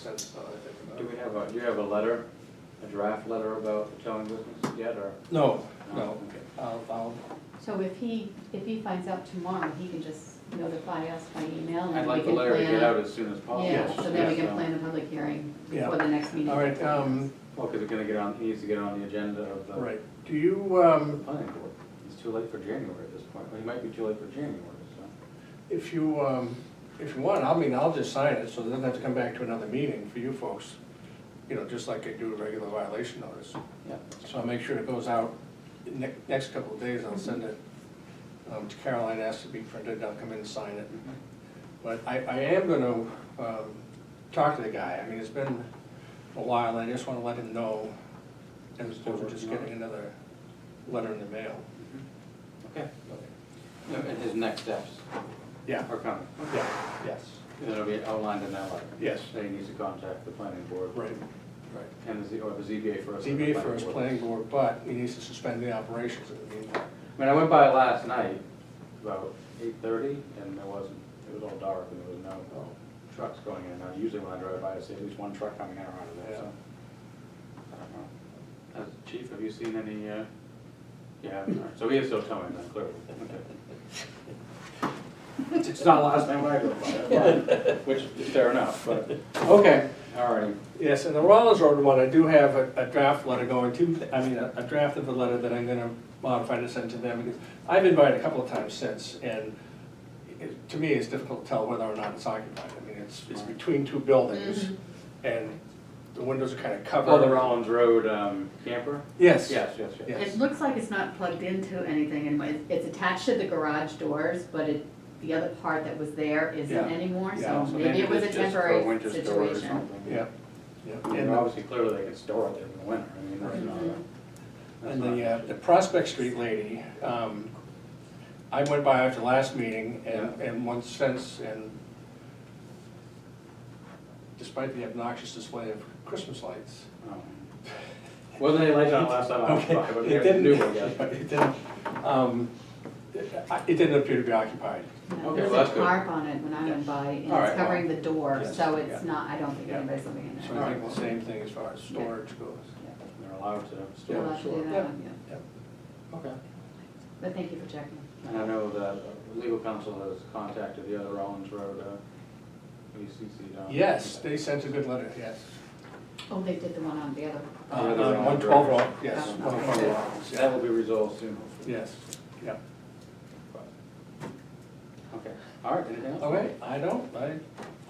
sense now that I think about Do it. we have a, do you have a letter, a draft letter about the towing business yet, or? No, no, Okay. I'll, I'll, So if he, if he finds out tomorrow, he can just notify us by email I'd and then we like the can letter to get out plan. as soon as possible. Yeah, so then we Yes, can plan a public hearing Yeah. before the next meeting. all right, um, Well, because it's gonna get on, he needs to get on the agenda of the. right, do you, um, Planning board. It's too late for January at this point, Well, it might be too late for January, so. if you, um, if you want, I mean, I'll just sign it, so it doesn't have to come back to another meeting for you folks. You know, just like I do a regular violation notice. Yeah. So I'll make sure it goes out, ne- next couple of days, I'll send it, um, to Caroline, ask to be printed, I'll come in and sign it. Mm-hmm. But I, I am gonna, um, talk to the guy, I mean, it's been a while, I just wanna let him know, as opposed to just getting another letter in the mail. Mm-hmm. Okay. No, And his next steps Yeah, are coming. yeah, yes, And it'll be outlined in that letter. Yes. That he needs to contact the planning board. right, right. And the, Z- or the ZBA first. and ZBA the planning first, board. planning board, but he needs to suspend the operations in the meantime. I mean, I went by last night, about eight thirty, and there wasn't, it was all dark and there was no trucks going in and out. Usually when I drive by, I see at least one truck coming in or out of there, so. I don't know. Uh, Chief, have you seen any, uh, yeah, all right. so he is still towing then, clearly. Okay. It's not last time I go by, but- which is fair enough, but, okay, all right. Yes, and the Rollins Road one, I do have a, a draft letter going to, I mean, a, a draft of the letter that I'm gonna modify to send to them, because I've been by it a couple of times since, and it, to me, it's difficult to tell whether or not it's occupied, I mean, it's, it's between two buildings, Mhm. and the windows are kinda covered. Oh, the Rollins Road um, camper? Yes. Yes, yes, yes. Yes. It looks like it's not plugged into anything and it- it's attached to the garage doors, but it, the other part that was there isn't Yeah. anymore, Yeah, so So maybe it was a it's just for temporary winter storage or situation. something. Yeah, yeah, I mean, and the, obviously, clearly, they can store it there in the winter, I mean, that's not. Mhm. that's and not- the, uh, the Prospect Street lady, um, I went by after last meeting and, and once since, and despite the obnoxious display of Christmas lights, Oh. Wasn't any light on last time I was Okay, by, but It there's a didn't, new one, yes. it didn't, um, it I- it didn't appear to be occupied. No, Okay, There's well, a that's good. tarp on it when I went by and All right, it's covering the door, yes, so yeah. it's not, I don't think Yeah. anybody's living in So there. I think the same thing as far as storage goes. They're allowed to We'll store have it, to do sure. that, Yeah. yeah. Okay. But thank you for checking. And I know that uh, legal counsel has contacted the other Rollins Road, uh, ECC down. Yes, they sent a good letter, yes. Oh, they did the one on the other. Oh, yeah, they're on uh, One twelve Rock. Rock, yes, Oh, one twelve okay. Rock, So That yeah, will be resolved soon, hopefully. yes, yeah. Okay, all right, anything else? Okay, I don't, I,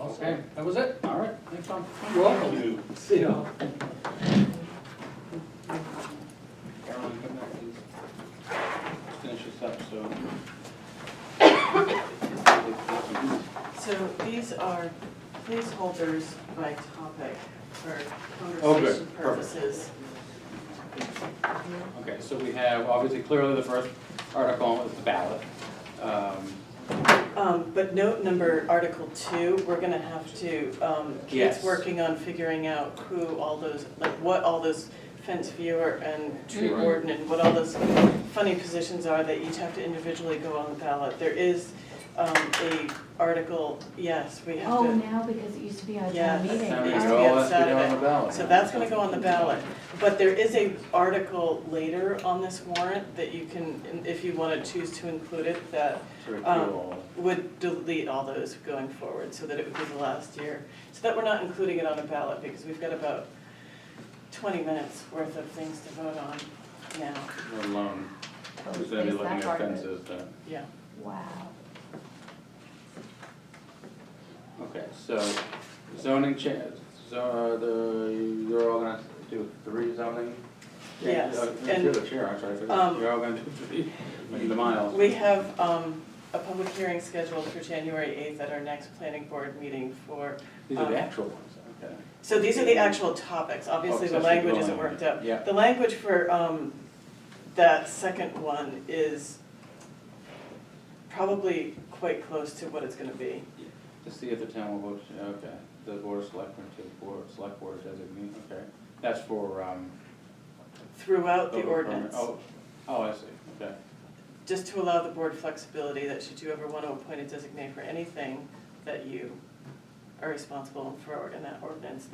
I'll say, Okay. that was it. All right, thanks, Tom. You're welcome. See ya. Carolyn, come back, please. Finish this up, so. So these are placeholders by topic for Oh, good. Perfect. conversation purposes. Okay, so we have, obviously, clearly the first article is the ballot. Um, Um, but note number, Article two, we're gonna have to, um, Yes. Kate's working on figuring out who all those, like what all those fence viewer and tree Mhm. warden and what all those funny positions are that each have to individually go on the ballot. There is, um, a article, yes, we have to. Oh, now because it used to be on Yeah. town meeting. Oh, Now we It used go, to be on let's get it on the Saturday. ballot. So that's gonna go on the ballot, but there is a article later on this warrant that you can, if you wanna choose to include it, that To repeal um, all of would delete all those going forward, so that it would be the last year. So that we're not including it on a ballot, because we've got about twenty minutes worth of things to vote on now, it, let alone, Oh, who's gonna be there's looking that at part of it. fences, uh, yeah. Wow. okay, so zoning cha, so, uh, the, you're all gonna do three zoning? Yes, Uh, You're and- the chair, I'm sorry, I forgot. Um, you're all gonna do three, in the miles. We have um, a public hearing scheduled for January eighth at our next planning board meeting for These are the um, actual ones, okay. So these are the actual topics, obviously Oh, the accessory language dwelling isn't worked out. Yeah. The language for, um, that second one is probably quite close to what it's gonna be. To see if the town will vote, yeah, okay, the board of selectmen to board, select board designee, okay, that's for, um. Throughout the building permit. ordinance, Oh, oh, I see, okay, just to allow the board flexibility that should you ever wanna appoint a designate for anything, that you are responsible for, in that ordinance,